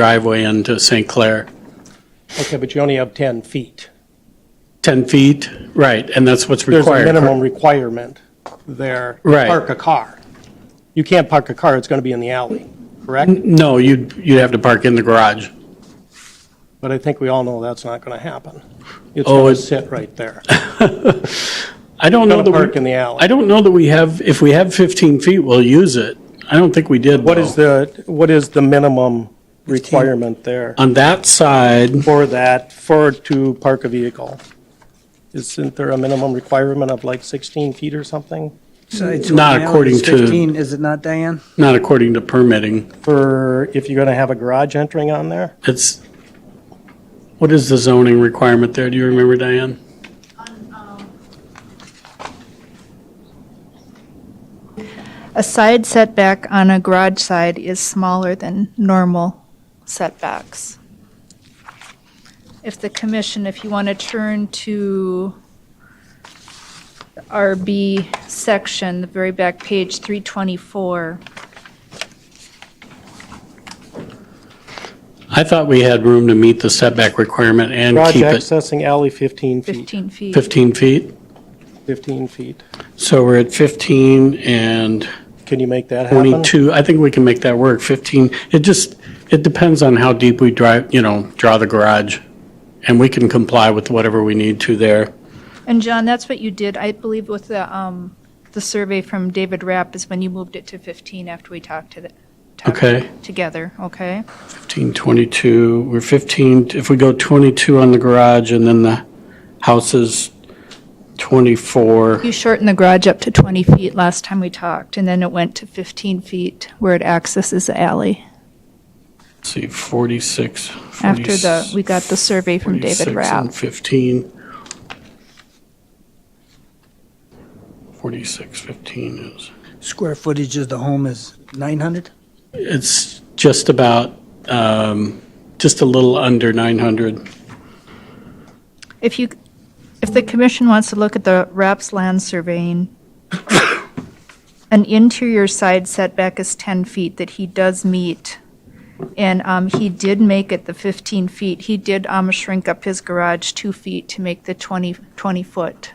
driveway into St. Clair. Okay, but you only have 10 feet. 10 feet, right, and that's what's There's a required. minimum requirement there. to Right. Park a car. You can't park a car, it's going to be in the alley, correct? No, you'd, you'd have to park in the garage. But I think we all know that's not going to happen. It's Oh, going it- to sit right there. I don't know Gonna that we. park in the alley. I don't know that we have, if we have 15 feet, we'll use it. I don't think we did, What is though. the, what is the minimum requirement there On that side, for that, for to park a vehicle? Isn't there a minimum requirement of like 16 feet or something Not according to- 15, is it not, Diane? not according to permitting, for if you're going to have a garage entering on there? it's, what is the zoning requirement there? Do you remember, Diane? A side setback on a garage side is smaller than normal setbacks. If the commission, if you want to turn to the RB section, the very back page, 324, I thought we had room to meet the setback requirement and Garage keep it accessing alley 15 feet, 15 feet. 15 feet. 15 feet. So we're at 15 and Can you make that happen? 22, I think we can make that work, 15, it just, it depends on how deep we drive, you know, draw the garage, and we can comply with whatever we need to there. And John, that's what you did, I believe, with the, um, the survey from David Rapp is when you moved it to 15 after we talked to the, talked Okay. together, okay? 15, 22, we're 15, if we go 22 on the garage, and then the house is 24, You shortened the garage up to 20 feet last time we talked, and then it went to 15 feet where it accesses the alley let's see, 46. after the, we got the survey from 46 David Rapp. and 15. 46, 15 is. Square footage of the home is 900? It's just about, um, just a little under 900. If you, if the commission wants to look at the Rapp's land surveying, an interior side setback is 10 feet that he does meet, and um, he did make it the 15 feet. He did um, shrink up his garage two feet to make the 20, 20-foot.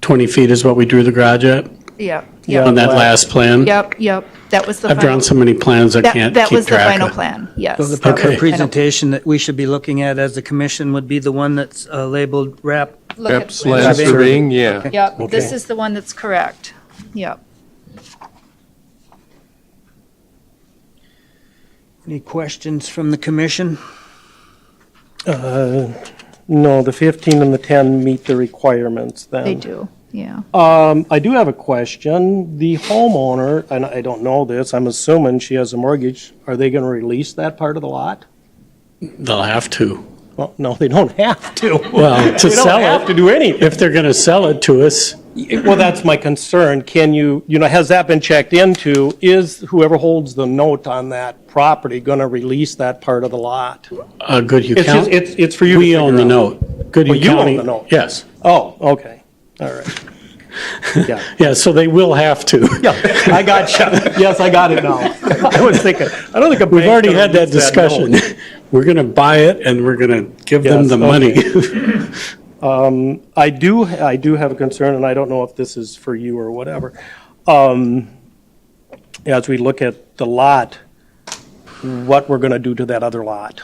20 feet is what we drew the garage at Yep, Yeah. yep, on that last plan? yep, yep. That was the I've final. drawn so many plans I That, can't that keep was the track final of. plan, yes. So the proper Okay. presentation that we should be looking at as the commission would be the one that's uh, labeled wrap. Look at- Slab surveying, yeah. Yep, this is the one that's correct. Yep. Any questions from the commission? Uh, No, the 15 and the 10 meet the requirements then. They do, yeah. Um, I do have a question. The homeowner, and I don't know this, I'm assuming she has a mortgage, are they going to release that part of the lot? They'll have to. Well, no, they don't have to. Well, to They don't sell have to it, do anything. if they're going to sell it to us, Well, that's my concern. Can you, you know, has that been checked into? Is whoever holds the note on that property going to release that part of the lot? uh, Goodhue It's, just- County. it's it's for you to We own figure the out. note. Goodhue Well, you own County- the note. Yes. Oh, okay, all right. Yeah. Yeah, so they will have to. Yeah, I got you. Yes, I got it now. I was thinking, I don't think a We've bank's already gonna had that release note. discussion. We're going to buy it and we're going to give them Yes, the money. I do, I do have a concern, and I don't know if this is for you or whatever. Um, As we look at the lot, what we're going to do to that other lot.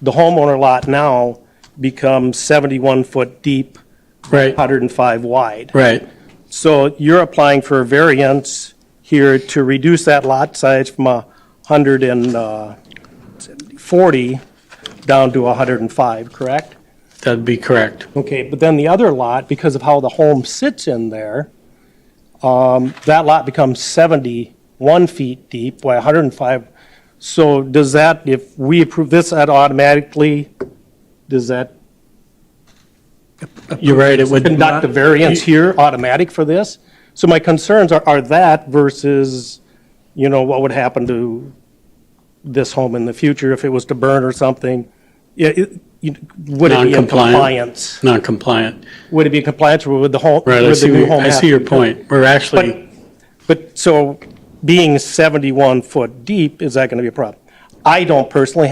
The homeowner lot now becomes 71 foot deep, Right, 105 wide. right. So you're applying for a variance here to reduce that lot size from a 140 down to 105, correct? That'd be correct. Okay, but then the other lot, because of how the home sits in there, um, that lot becomes 71 feet deep by 105. So does that, if we approve this, that automatically, does that You're right, it would. conduct a variance here automatic for this? So my concerns are, are that versus, you know, what would happen to this home in the future if it was to burn or something? Yeah, it- you- Would it be in Non-compliant. compliance? Non-compliant. Would it be compliant or would the home, Right, I would the see, new where- home I have see to your be- point. We're actually. But, but, so being 71 foot deep, is that going to be a problem? I don't personally have